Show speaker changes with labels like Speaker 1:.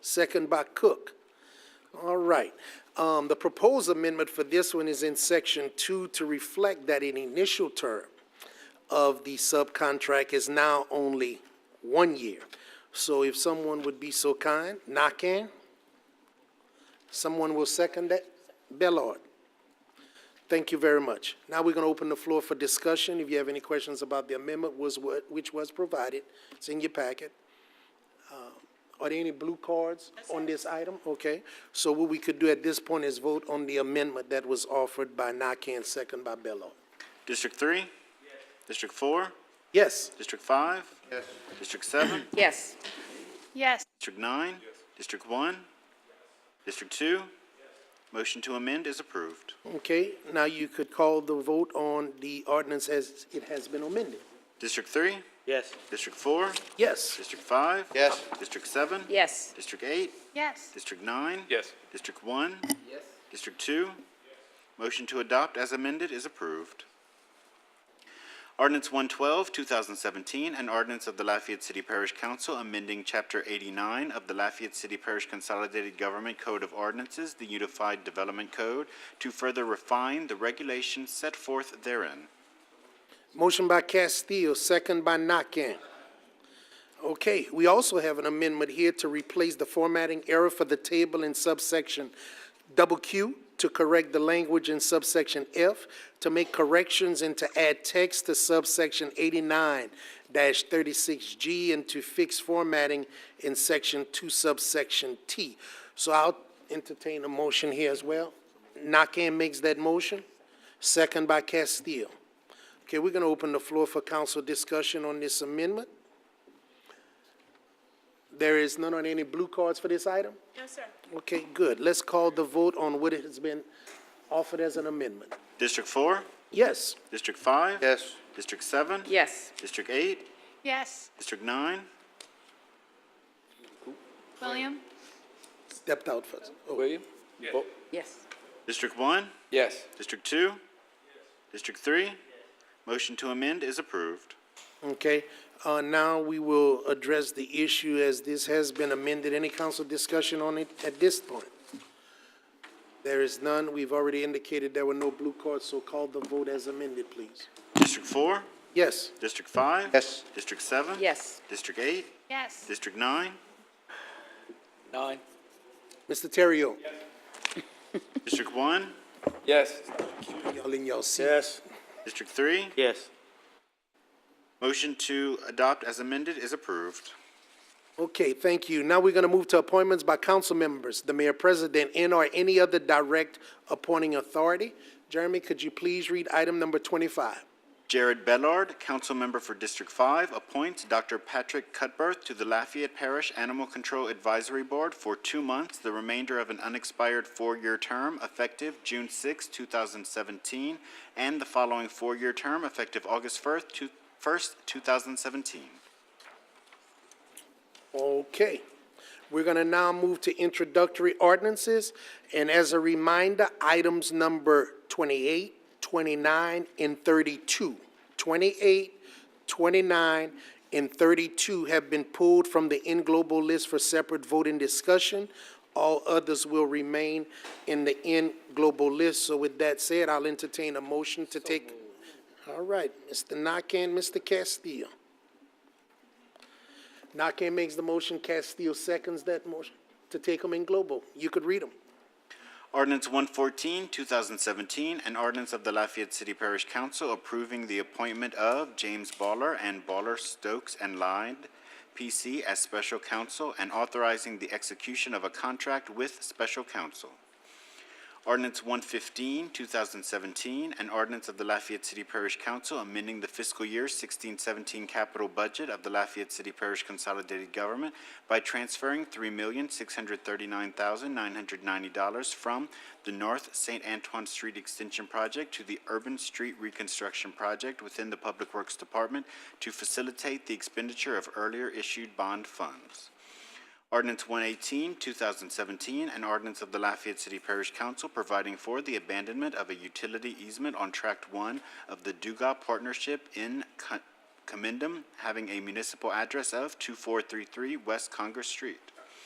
Speaker 1: second by Cook. All right. Um, the proposed amendment for this one is in section two to reflect that an initial term of the subcontract is now only one year. So if someone would be so kind, knock in. Someone will second that? Bellard. Thank you very much. Now we're going to open the floor for discussion. If you have any questions about the amendment was what, which was provided, it's in your packet. Are there any blue cards on this item? Okay, so what we could do at this point is vote on the amendment that was offered by Nakane, second by Bello.
Speaker 2: District three? District four?
Speaker 1: Yes,
Speaker 2: District five? Yes. District seven?
Speaker 3: Yes. Yes.
Speaker 2: District nine? District one? District two? Motion to amend is approved.
Speaker 1: okay, now you could call the vote on the ordinance as it has been amended.
Speaker 2: District three?
Speaker 4: Yes.
Speaker 2: District four?
Speaker 1: Yes,
Speaker 2: District five?
Speaker 4: Yes.
Speaker 2: District seven?
Speaker 3: Yes.
Speaker 2: District eight?
Speaker 3: Yes.
Speaker 2: District nine?
Speaker 4: Yes.
Speaker 2: District one? Yes. District two? Motion to adopt as amended is approved. Ordinance 112, 2017, an ordinance of the Lafayette City Parish Council amending Chapter 89 of the Lafayette City Parish Consolidated Government Code of Ordinances, the Unified Development Code, to further refine the regulations set forth therein.
Speaker 1: motion by Castillo, second by Nakane. Okay, we also have an amendment here to replace the formatting error for the table in subsection double Q to correct the language in subsection F, to make corrections and to add text to subsection eighty-nine thirty-six G and to fix formatting in section two subsection T. So I'll entertain a motion here as well. Nakane makes that motion, second by Castillo. Okay, we're gonna open the floor for council discussion on this amendment. There is none on any blue cards for this item?
Speaker 3: No, sir.
Speaker 1: Okay, good. Let's call the vote on what has been offered as an amendment.
Speaker 2: District 4?
Speaker 1: Yes,
Speaker 2: District 5?
Speaker 4: Yes.
Speaker 2: District 7?
Speaker 3: Yes.
Speaker 2: District 8?
Speaker 3: Yes.
Speaker 2: District 9?
Speaker 3: William?
Speaker 1: stepped out first. Oh,
Speaker 4: William? Yes.
Speaker 3: Yes.
Speaker 2: District 1?
Speaker 4: Yes.
Speaker 2: District two? District three? Motion to amend is approved.
Speaker 1: Okay, uh, now we will address the issue as this has been amended. Any council discussion on it at this point? There is none. We've already indicated there were no blue cards, so call the vote as amended, please.
Speaker 2: District four?
Speaker 1: Yes,
Speaker 2: District five?
Speaker 4: Yes.
Speaker 2: District seven?
Speaker 3: Yes.
Speaker 2: District eight?
Speaker 3: Yes.
Speaker 2: District nine?
Speaker 4: Nine.
Speaker 1: Mr. Terrio?
Speaker 2: District one?
Speaker 4: Yes.
Speaker 1: Y'all in y'all seat.
Speaker 4: Yes.
Speaker 2: District three?
Speaker 4: Yes.
Speaker 2: Motion to adopt as amended is approved.
Speaker 1: Okay, thank you. Now we're going to move to appointments by council members, the mayor, president, and or any other direct appointing authority. Jeremy, could you please read item number twenty-five?
Speaker 2: Jared Bellard, council member for District Five, appoints Dr. Patrick Cutbirth to the Lafayette Parish Animal Control Advisory Board for two months, the remainder of an unexpired four-year term effective June 6, thousand seventeen, and the following four-year term effective August first, two, first, two thousand seventeen.
Speaker 1: Okay. We're going to now move to introductory ordinances. And as a reminder, items number 28, 29, and 32. 28, 29, and 32 have been pulled from the in global list for separate vote and discussion. All others will remain in the in global list. So with that said, I'll entertain a motion to take. All right, Mr. Nakane, Mr. Castillo. Nakane makes the motion, Castillo seconds that motion, to take them in global. You could read them.
Speaker 2: Ordinance 114, 2017, an ordinance of the Lafayette City Parish Council approving the appointment of James Baller and Baller Stokes and Lyde, P.C. as special counsel and authorizing the execution of a contract with special counsel. Ordinance 115, 2017, an ordinance of the Lafayette City Parish Council amending the fiscal year 1617 capital budget of the Lafayette City Parish Consolidated Government by transferring $3,639,990 from the North St. Antoine Street Extension Project to the Urban Street Reconstruction Project within the Public Works Department to facilitate the expenditure of earlier issued bond funds. Ordinance 118, 2017, an ordinance of the Lafayette City Parish Council providing for the abandonment of a utility easement on Tract 1 of the Duga Partnership in Co- Commendam, having a municipal address of 2433 West Congress Street.